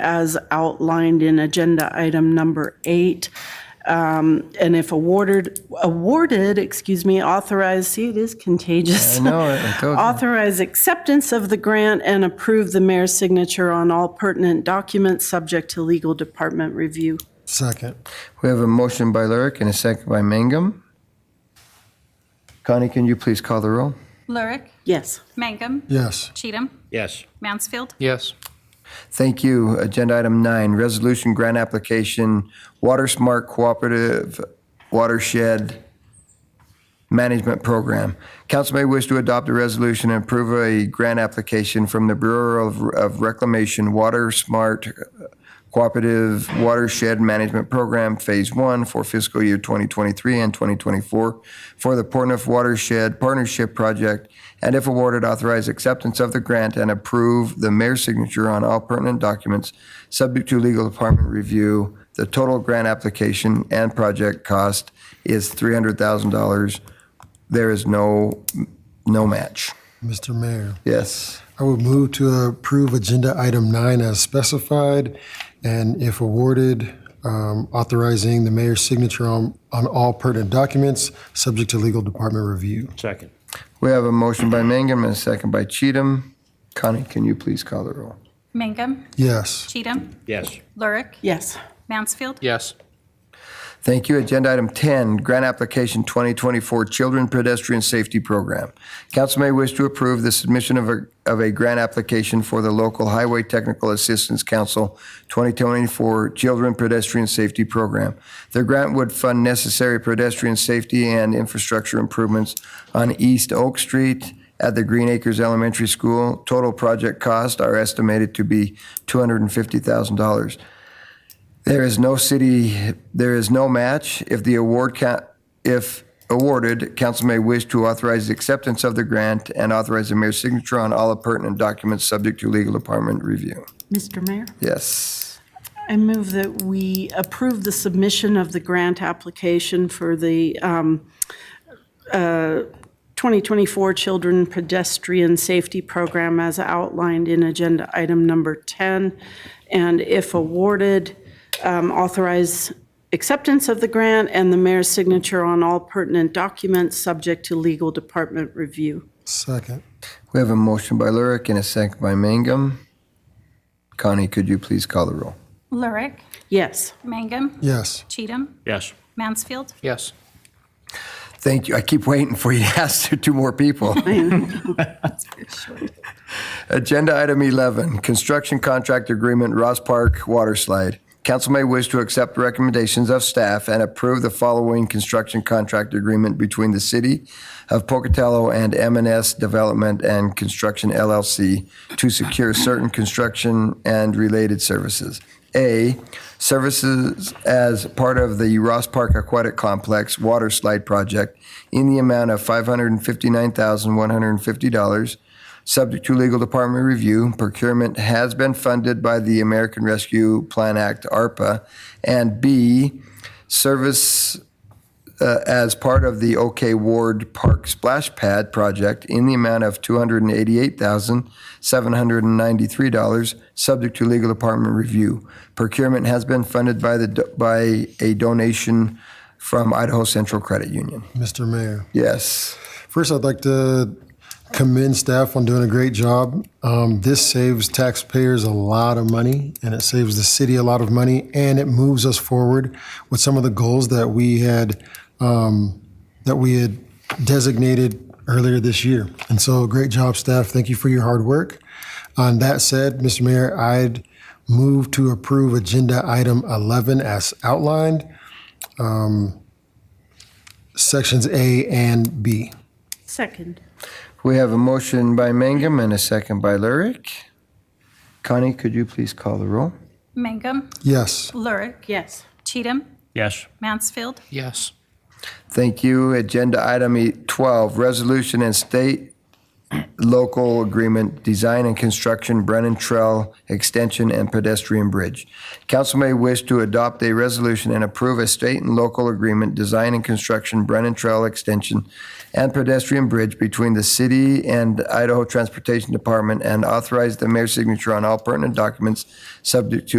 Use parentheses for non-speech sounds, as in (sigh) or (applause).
as outlined in agenda item number eight. Um, And if awarded, awarded, excuse me, authorized, see, it is contagious. I know it. I told you. Authorize acceptance of the grant and approve the mayor's signature on all pertinent documents, subject to legal department review. Second. We have a motion by Lurick and a second by Mangum. Connie, can you please call the roll? Lurick, Yes. Mangum, Yes. Cheatham, Yes. Mansfield, Yes. Thank you. Agenda item nine, resolution grant application, Water Smart Cooperative Watershed Management Program. Council may wish to adopt a resolution and approve a grant application from the Bureau of- of Reclamation Water Smart Cooperative Watershed Management Program Phase One for fiscal year 2023 and 2024 for the Portneuf Watershed Partnership Project, and if awarded, authorize acceptance of the grant and approve the mayor's signature on all pertinent documents, subject to legal department review. The total grant application and project cost is $300,000. There is no, no match. Mr. Mayor, Yes. I would move to approve agenda item nine as specified, and if awarded, um, authorizing the mayor's signature on, on all pertinent documents, subject to legal department review. Second. We have a motion by Mangum and a second by Cheatham. Connie, can you please call the roll? Mangum, Yes. Cheatham, Yes. Lurick, Yes. Mansfield, Yes. Thank you. Agenda item 10, grant application 2024 Children Pedestrian Safety Program. Council may wish to approve the submission of a, of a grant application for the local Highway Technical Assistance Council 2024 Children Pedestrian Safety Program. The grant would fund necessary pedestrian safety and infrastructure improvements on East Oak Street at the Green Acres Elementary School. Total project costs are estimated to be $250,000. There is no city, there is no match. If the award, ca- if awarded, council may wish to authorize the acceptance of the grant and authorize the mayor's signature on all pertinent documents subject to legal department review. Mr. Mayor? Yes. I move that we approve the submission of the grant application for the um, uh, 2024 Children Pedestrian Safety Program as outlined in agenda item number 10, and if awarded, um, authorize acceptance of the grant and the mayor's signature on all pertinent documents, subject to legal department review. Second. We have a motion by Lurick and a second by Mangum. Connie, could you please call the roll? Lurick, Yes. Mangum, Yes. Cheatham, Yes. Mansfield, Yes. Thank you. I keep waiting for you to (laughs) ask two more people. Agenda item 11, construction contract agreement, Ross Park Water Slide. Council may wish to accept recommendations of staff and approve the following construction contract agreement between the City of Pocatello and m and s Development and Construction LLC to secure certain construction and related services. A, services as part of the Ross Park Aquatic Complex Water Slide Project in the amount of $559,150 Subject to legal department review, procurement has been funded by the American Rescue Plan Act, ARPA. And B, service uh, as part of the OK Ward Park Splash Pad project in the amount of $288,793, subject to legal department review. Procurement has been funded by the, do- by a donation from Idaho Central Credit Union. Mr. Mayor. Yes. First, I'd like to commend staff on doing a great job. Um, this saves taxpayers a lot of money and it saves the city a lot of money and it moves us forward with some of the goals that we had um, that we had designated earlier this year. And so great job, staff. Thank you for your hard work. On that said, Mr. Mayor, I'd move to approve agenda item 11 as outlined, um, sections A and B. Second. We have a motion by Mangum and a second by Lurick. Connie, could you please call the roll? Mangum, Yes. Lurick, Yes. Cheatham, Yes. Mansfield, Yes. Thank you. Agenda item E- 12, resolution and state local agreement, design and construction Brennan Trail Extension and Pedestrian Bridge. Council may wish to adopt a resolution and approve a state and local agreement, design and construction Brennan Trail Extension and Pedestrian Bridge between the city and Idaho Transportation Department and authorize the mayor's signature on all pertinent documents subject to